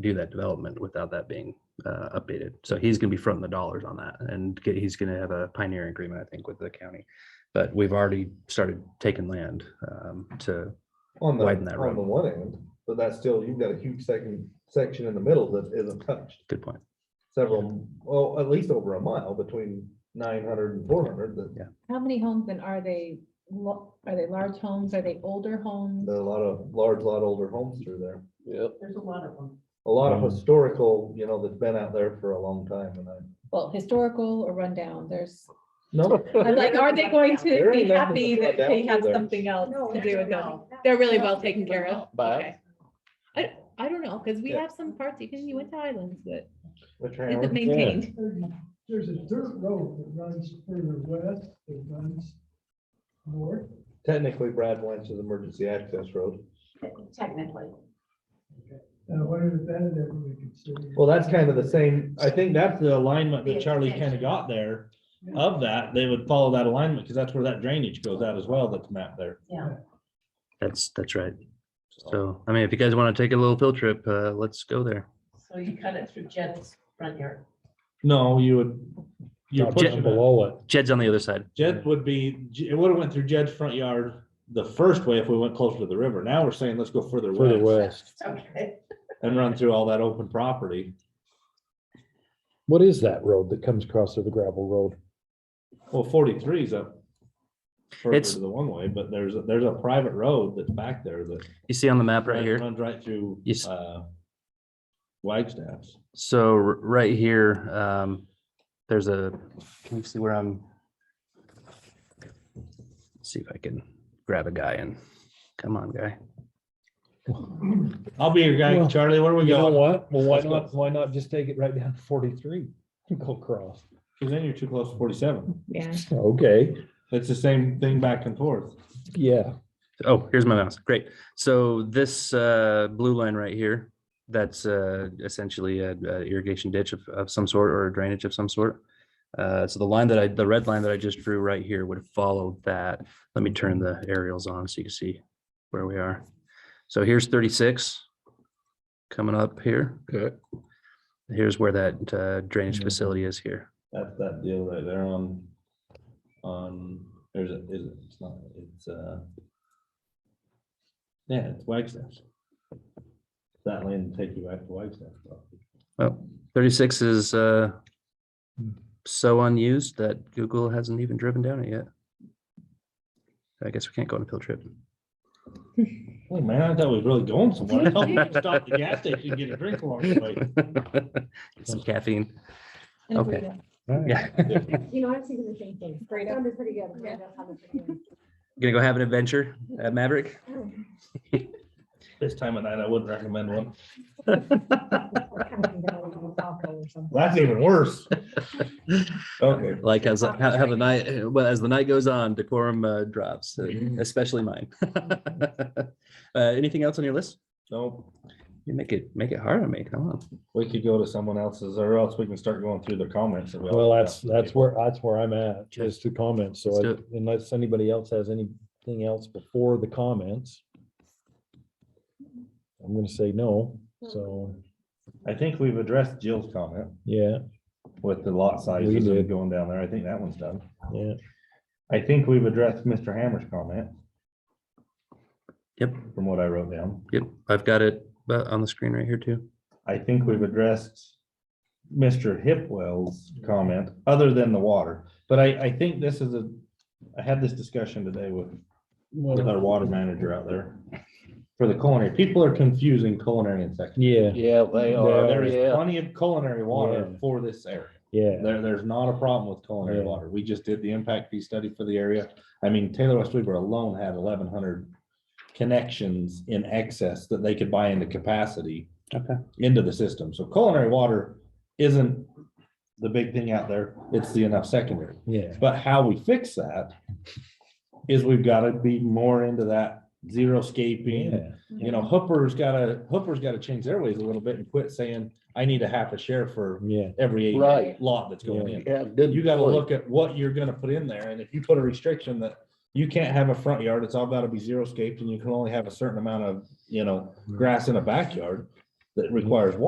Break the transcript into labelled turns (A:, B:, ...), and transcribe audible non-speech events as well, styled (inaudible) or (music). A: do that development without that being uh, updated. So he's going to be fronting the dollars on that and get, he's going to have a pioneer agreement, I think, with the county. But we've already started taking land um, to,
B: On the,
A: widen that road.
B: on the one end, but that's still, you've got a huge second section in the middle that isn't touched.
A: good point.
B: Several, well, at least over a mile between 900 and 400. that
C: How many homes and are they, lo- are they large homes? Are they older homes?
B: there are a lot of, large, lot older homes through there.
D: Yep.
E: There's a lot of them.
B: A lot of
A: Mm.
B: historical, you know, that's been out there for a long time and I.
C: Well, historical or rundown, there's,
B: (laughs)
A: (laughs)
B: No.
C: I'm like, are they going to
B: There
C: be
B: ain't nothing
C: happy
B: that's
C: that
B: rundown
C: they have
B: through there.
C: something else
E: No,
C: to do with them?
E: no.
C: They're really well taken care of.
D: But-
C: Okay. I, I don't know, because we
B: Yeah.
C: have some parts, even you went to Highlands, that
B: Which
C: isn't
B: round?
C: maintained.
F: There's a dirt road that runs further west, that runs north.
B: Technically Brad Blanch's emergency access road.
E: Technically.
F: Uh, what is that that we consider?
B: Well, that's kind of the same,
G: I think that's the alignment
E: The
G: that Charlie kind
E: extension.
G: of got there of that. They would follow that alignment because that's where that drainage goes out as well, that's mapped there.
A: That's, that's right. So, I mean, if you guys want to take a little field trip, uh, let's go there.
E: So you cut it through Jed's front yard.
G: No, you would, you're pushing it.
H: below it.
A: Jed's on the other side.
G: Jed would be, it would have went through Jed's front yard the first way if we went closer to the river. Now we're saying let's go further
H: Further
G: west
H: west.
E: Okay.
G: and run through all that open property.
H: What is that road that comes across to the gravel road?
G: Well, forty-three is up further
A: It's-
G: to the one way, but there's, a- there's a private road that's back there that
A: You see on the map right
G: runs-
A: here?
G: Runs right through,
A: Yes.
G: uh, Wagstaff's.
A: So r- right here, um, there's a, can you see where I'm? See if I can grab a guy and, come on, guy.
G: I'll be your guy,
H: Well,
G: Charlie. Where are we
H: You know
G: going?
H: what? Well, why
G: Let's go.
H: not, why not just take it right down to forty-three? and Go across.
G: Because then you're too close to forty-seven.
C: Yeah.
H: Okay,
G: It's the same thing back and forth.
H: yeah.
A: Oh, here's my mouse. Great. So this uh, blue line right here, that's uh, essentially a a irrigation ditch of, of some sort or a drainage of some sort. Uh, So the line that I, the red line that I just drew right here would follow that. Let me turn the aerials on so you can see where we are. So here's 36 coming up here.
H: Okay.
A: Here's where that uh, drainage facility is here.
G: That's that deal right there on, on, there's, a- is it, it's not, it's, uh, yeah, it's Wagstaff's. That lane will take you back to Wagstaff.
A: Well, 36 is uh, so unused that Google hasn't even driven down it yet. I guess we can't go on a field trip.
G: Oh, man, I thought we was really going somewhere. I thought we were gonna Stop at the gas station and get a drink along the way.
A: Get (laughs) Some caffeine.
C: And if we
A: Okay.
C: don't-
A: Yeah.
I: (laughs) You know, I'm thinking the same thing.
C: Great.
I: Sounded pretty good.
C: Yeah.
A: Gonna go have an adventure at Maverick.
G: This time of night, I wouldn't recommend one.
I: Well,
G: That's even worse. Okay.
A: Like as, how how the night, well, as the night goes on, decorum uh, drops, uh, especially mine. (laughs) Uh, Anything else on your list?
G: Nope.
A: You make it, make it hard on me, come on.
G: We could go to someone else's or else we can start going through the comments. that we all
H: Well,
G: have.
H: that's, that's where, that's where I'm at, is the comments. So
A: Let's do
H: I- unless anybody else has anything else before the comments. I'm gonna say no, so,
G: I think we've addressed Jill's comment
H: yeah,
G: with the lot sizes
H: did.
G: and going down there. I think that one's done.
H: yeah.
G: I think we've addressed Mr. Hammer's comment.
A: Yep.
G: From what I wrote down.
A: Yep, I've got it uh, on the screen right here too.
G: I think we've addressed Mr. Hipwell's comment, other than the water. But I, I think this is a, I had this discussion today with with our water manager out there for the culinary. People are confusing culinary and secondary.
H: Yeah,
D: Yeah, they
H: are.
G: There
D: are,
G: is
D: yeah.
G: plenty of culinary water
H: Yeah.
G: for this area.
H: yeah.
G: There, there's not a problem with culinary
H: Yeah.
G: water. We just did the impact fee study for the area. I mean, Taylor West Weaver alone had eleven hundred connections in excess that they could buy into capacity
A: Okay.
G: into the system. So culinary water isn't the big thing out there. It's the enough secondary.
H: Yeah.
G: But how we fix that is we've got to be more into that zero scaping.
H: Yeah.
G: You know, Hooper's got to, Hooper's got to change their ways a little bit and quit saying, I need a half a share for
H: Yeah.
G: every acre
D: Right.
G: lot that's going in.
D: Yeah, good
G: You gotta
D: point.
G: look at what you're gonna put in there, and if you put a restriction that you can't have a front yard, it's all gotta be zero scaped, and you can only have a certain amount of, you know, grass in a backyard that requires water.